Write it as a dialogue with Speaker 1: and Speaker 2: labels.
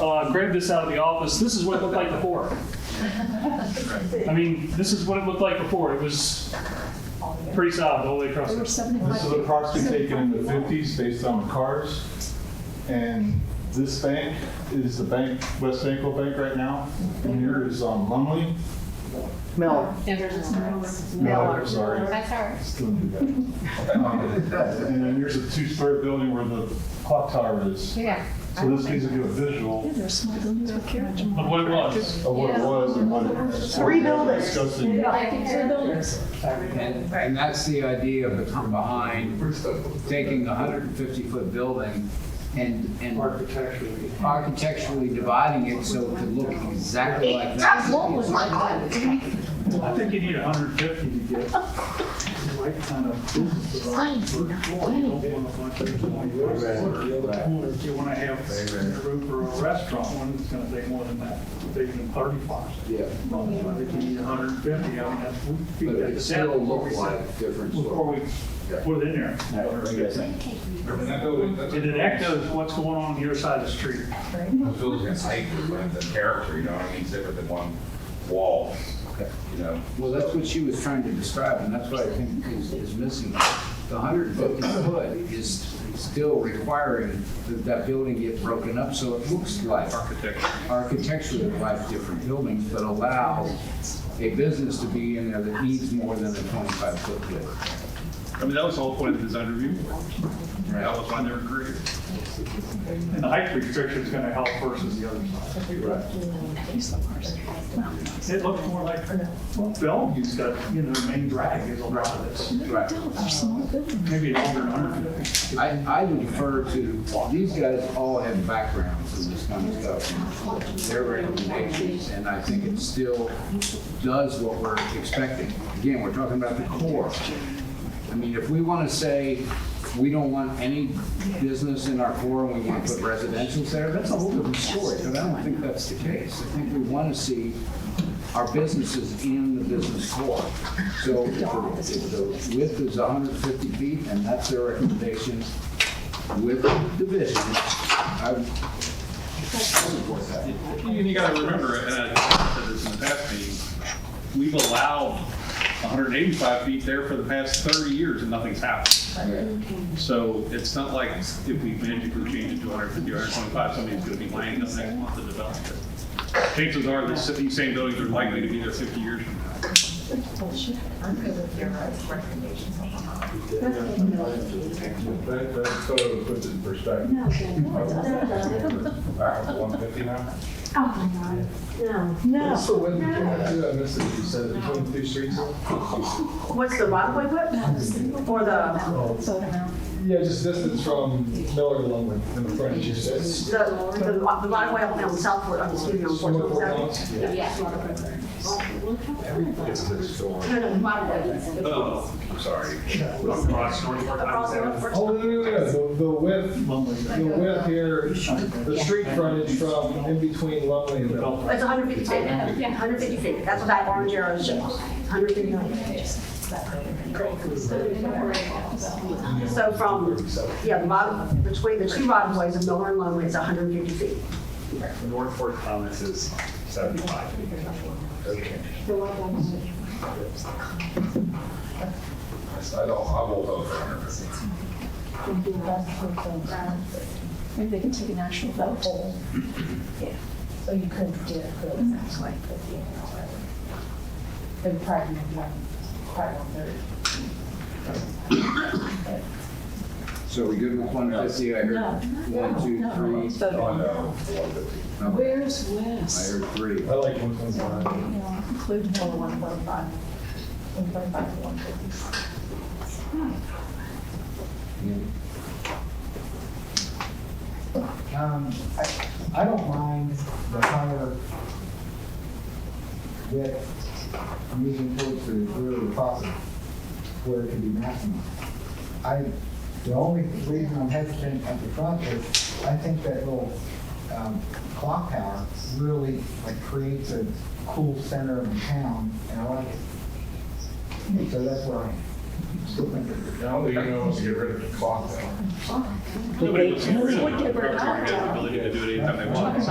Speaker 1: uh, grabbed this out of the office. This is what it looked like before. I mean, this is what it looked like before. It was pretty solid all the way across.
Speaker 2: There were
Speaker 1: it.
Speaker 2: 75.
Speaker 3: This is a proxy taken in the fifties based on cars. And this bank is the bank, West Banco Bank right now. And here is um, Lumley.
Speaker 4: Miller.
Speaker 3: No, I'm sorry.
Speaker 5: That's all right.
Speaker 3: Still do that. Um, And then here's a two-story building where the clock tower is.
Speaker 5: Yeah.
Speaker 3: So this gives you a visual
Speaker 2: Yeah, there are small buildings with carriage. and-
Speaker 1: Of what it was.
Speaker 3: of what it was and what. it-
Speaker 4: Three buildings.
Speaker 3: Discussing.
Speaker 5: Like in two buildings.
Speaker 6: And, and that's the idea of the come behind, taking a hundred and fifty foot building and, and
Speaker 7: Architecturally.
Speaker 6: architecturally dividing it so it could look exactly like that.
Speaker 7: I think you need hundred and fifty to get the right kind of business development. First floor, You don't want a bunch of people on your floor. The other floor, you wanna have a roof or a restaurant, one that's gonna take more than that, bigger than thirty boxes.
Speaker 6: Yeah,
Speaker 7: Well, I think you need hundred and fifty, I mean, that's, we
Speaker 6: but
Speaker 7: figured that
Speaker 6: it
Speaker 7: out
Speaker 6: still
Speaker 7: before
Speaker 6: look
Speaker 7: we said-
Speaker 6: like different
Speaker 7: Before
Speaker 6: story.
Speaker 7: we put it in there. It it echoes what's going on on your side of the street.
Speaker 8: Those buildings are anchored, but the character, you know, what I mean, it's different than one wall, you know.
Speaker 6: Well, that's what she was trying to describe, and that's what I think is, is missing. The hundred and fifty foot is still requiring that that building get broken up so it looks like architecturally like different buildings, but allow a business to be in there that needs more than a twenty-five foot building.
Speaker 9: I mean, that was the whole point of the design review board. That was why they were created.
Speaker 7: And the height restriction is gonna help versus the other side. It looks more like, well, Bellevue's got, you know, the main drag is a lot of this.
Speaker 6: Right.
Speaker 2: No, they're small buildings.
Speaker 7: Maybe longer than 150.
Speaker 6: I, I would defer to, these guys all have backgrounds in this kind of stuff. and Their recommendations, and I think it still does what we're expecting. Again, we're talking about the core. I mean, if we want to say, we don't want any business in our core and we want to put residential there, that's a whole different story, but I don't think that's the case. I think we want to see our businesses in the business core. So if the if the width is 150 feet, and that's their recommendation with division, um, I would support that.
Speaker 9: And you gotta remember, and I said this in the past meetings, we've allowed 185 feet there for the past 30 years and nothing's happened. So it's not like if we magically change it to 150 or 125, somebody's gonna be laying up next month to develop it. Chances are, the si- these same buildings are likely to be there 50 years from now.
Speaker 8: That, that photo puts it in perspective. Back up one fifty now?
Speaker 4: No.
Speaker 3: So when, I missed it, you said between two streets?
Speaker 4: What's the Rockaway whip? Or the,
Speaker 3: Yeah, just distance from Miller to Lumley in the front, you
Speaker 4: the, the the Rockaway up on Southwood, on the studio on Fourth Street?
Speaker 9: Oh,
Speaker 8: I'm sorry.
Speaker 4: Across the North Fourth
Speaker 3: Oh, no, no, no, no, the- the width, the width here, the street frontage from in between Lumley and Miller.
Speaker 4: It's 150 feet, 150 feet, that's what that orange arrow shows, 150 feet. So from, yeah, the bottom, between the two right-of-ways of Miller and Lumley, it's 150 feet.
Speaker 7: North Fork Thomas is 75.
Speaker 8: I don't, I will vote for hundred fifty.
Speaker 2: Maybe they can take an actual vote.
Speaker 10: So you couldn't do it, but it was actually put the, the department, department third.
Speaker 6: So we good with 150? I heard
Speaker 10: Uh,
Speaker 6: one, two, three.
Speaker 8: Oh, no, one fifty.
Speaker 2: Where's
Speaker 6: I
Speaker 2: Wes?
Speaker 6: heard three.
Speaker 3: I like one twenty-five.
Speaker 2: Include
Speaker 10: Or one point five, one point five to one fifty.
Speaker 7: Um, I, I don't mind the higher width moving towards the rear of the property where it can be maximized. I, the only reason I'm hesitant at the front is I think that little, um, clock tower really like creates a cool center of town and I like it. So that's where I still think it's
Speaker 8: I don't think anyone wants to get rid of the clock now.
Speaker 9: Nobody was. Nobody had the ability to do it anytime they wanted.